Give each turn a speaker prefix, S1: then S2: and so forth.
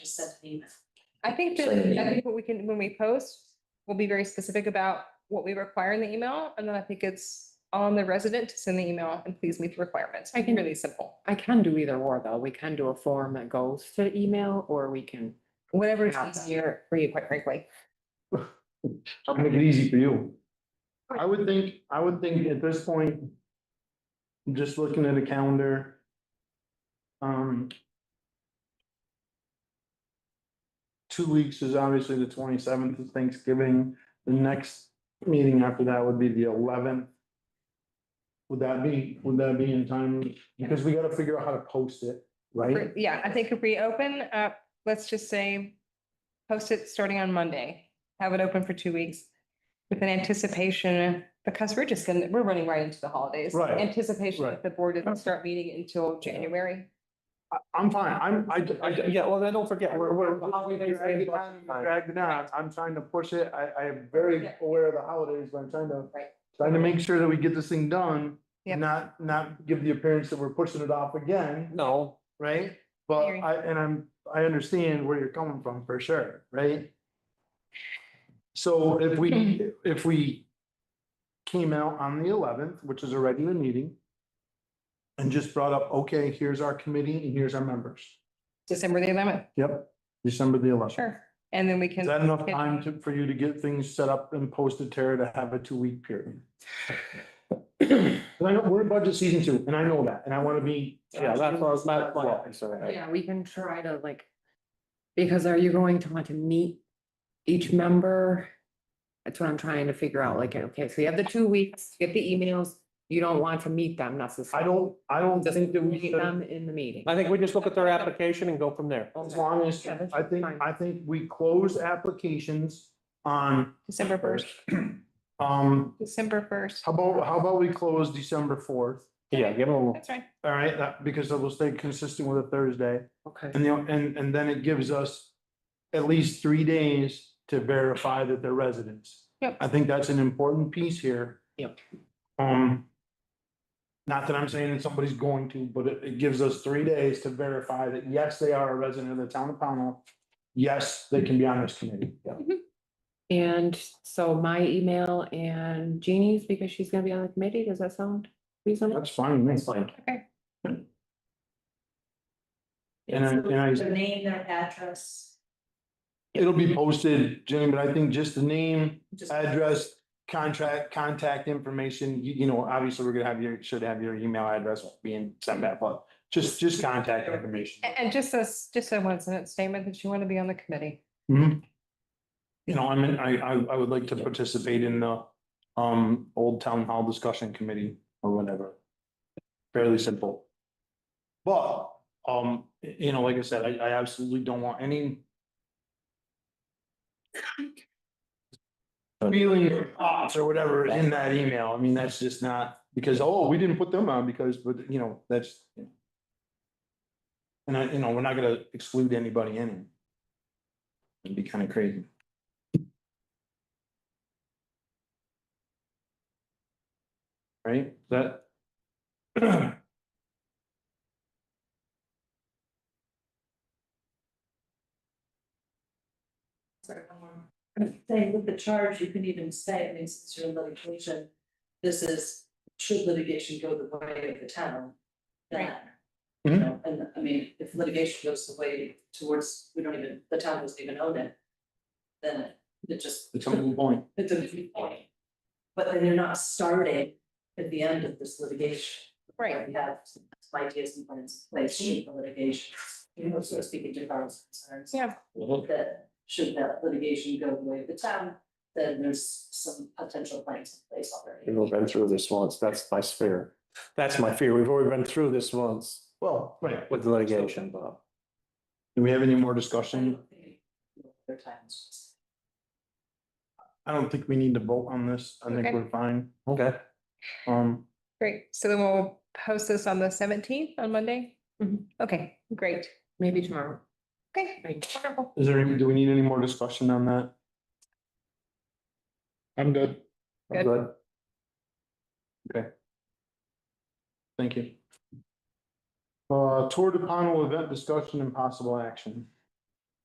S1: just sent an email.
S2: I think that, I think what we can, when we post, we'll be very specific about what we require in the email, and then I think it's on the resident to send the email and please meet the requirements. I think really simple,
S3: I can do either or though. We can do a form that goes to email or we can.
S2: whatever is
S3: Yeah.
S2: easier for you, quite frankly.
S4: Make it easy for you. I would think, I would think at this point, just looking at a calendar, um, two weeks is obviously the twenty-seventh is Thanksgiving. The next meeting after that would be the eleventh. Would that be, would that be in time? Because we gotta figure out how to post it, right?
S2: For- Yeah, I think if we open up, let's just say, post it starting on Monday, have it open for two weeks with an anticipation, because we're just gonna, we're running right into the holidays.
S4: Right,
S2: Anticipation
S4: right.
S2: that the board doesn't start meeting until January.
S4: I, I'm fine. I'm, I, I,
S5: Yeah, well, then don't forget,
S4: We're,
S5: we're,
S4: we're.
S5: we're.
S4: dragging it on. I'm trying to push it. I, I am very
S2: Yeah.
S4: aware of the holidays, but I'm trying to.
S2: Right.
S4: Trying to make sure that we get this thing done,
S2: Yep.
S4: not, not give the appearance that we're pushing it off again,
S5: No,
S4: right? But
S2: Agree.
S4: I, and I'm, I understand where you're coming from for sure, right? So if we, if we came out on the eleventh, which is a regular meeting. And just brought up, okay, here's our committee and here's our members.
S2: December the eleventh,
S4: Yep, December the eleventh.
S2: sure. And then we can.
S4: Is that enough time to, for you to get things set up and posted, Tara, to have a two-week period? And I know, we're in budget season two, and I know that, and I wanna be.
S5: yeah, that's what I was not.
S3: Yeah, we can try to like, because are you going to want to meet each member? That's what I'm trying to figure out, like, okay, so you have the two weeks, get the emails, you don't want to meet them
S4: I
S3: necessarily.
S4: don't, I don't
S3: Just
S4: think that we
S3: meet
S4: should,
S3: them in the meeting.
S5: I think we just look at their application and go from there.
S4: as long as,
S3: Yeah, that's
S4: I think,
S3: fine.
S4: I think we close applications on.
S2: December first,
S4: Um,
S2: December first.
S4: how about, how about we close December fourth,
S5: Yeah, give them,
S2: That's right.
S4: all right, that, because that will stay consistent with a Thursday.
S3: Okay.
S4: And, you know, and, and then it gives us at least three days to verify that they're residents.
S2: Yep.
S4: I think that's an important piece here.
S3: Yep.
S4: Um, not that I'm saying that somebody's going to, but it, it gives us three days to verify that, yes, they are a resident of the town of Pownell. Yes, they can be on this committee.
S3: And so my email and Jeannie's, because she's gonna be on the committee, does that sound reasonable?
S4: That's fine, that's
S3: fine.
S2: Okay.
S4: And I, and
S1: The
S4: I,
S1: name, their address,
S4: it'll be posted, Jane, but I think just the name,
S1: just.
S4: address, contract, contact information, you, you know, obviously, we're gonna have your, should have your email address being sent back, but just, just contact information.
S2: And, and just a, s- just a one sentence statement that you want to be on the committee.
S4: Mhm. You know, I mean, I, I, I would like to participate in the, um, Old Town Hall Discussion Committee or whatever. Fairly simple. But, um, y- you know, like I said, I, I absolutely don't want any feeling or thoughts or whatever in that email. I mean, that's just not, because, oh, we didn't put them on because, but, you know, that's and I, you know, we're not gonna exclude anybody in it. It'd be kind of crazy. Right, that.
S1: Sorry, one more. Thing with the charge, you can even say, I mean, since you're in litigation, this is, should litigation go the way of the town? Then. You
S4: Mhm.
S1: know, and I mean, if litigation goes the way towards, we don't even, the town doesn't even own it. Then it- it just.
S4: It's a moot point.
S1: It's a viewpoint. But then you're not starting at the end of this litigation. We have some ideas and plans in place should the litigation, you know, so speaking to Carl's concerns.
S2: Yeah.
S1: That should that litigation go the way of the town, then there's some potential plans in place already.
S5: We've been through this once, that's my fear. That's my fear, we've already been through this once
S4: Well, right.
S5: with litigation, Bob.
S4: Do we have any more
S1: I
S4: discussion?
S1: don't think Other times.
S4: I don't think we need to vote on this. I think
S2: Okay.
S4: we're fine.
S5: Okay.
S4: Um,
S2: Great. So then we'll post this on the seventeenth on Monday?
S3: Mhm.
S2: Okay, great.
S3: Maybe tomorrow.
S2: Okay,
S3: Thank you.
S2: wonderful.
S4: is there, any- do we need any more discussion on that? I'm good.
S2: Good.
S4: Good. Okay. Thank you. Uh, Tour de Pownell event discussion and possible action.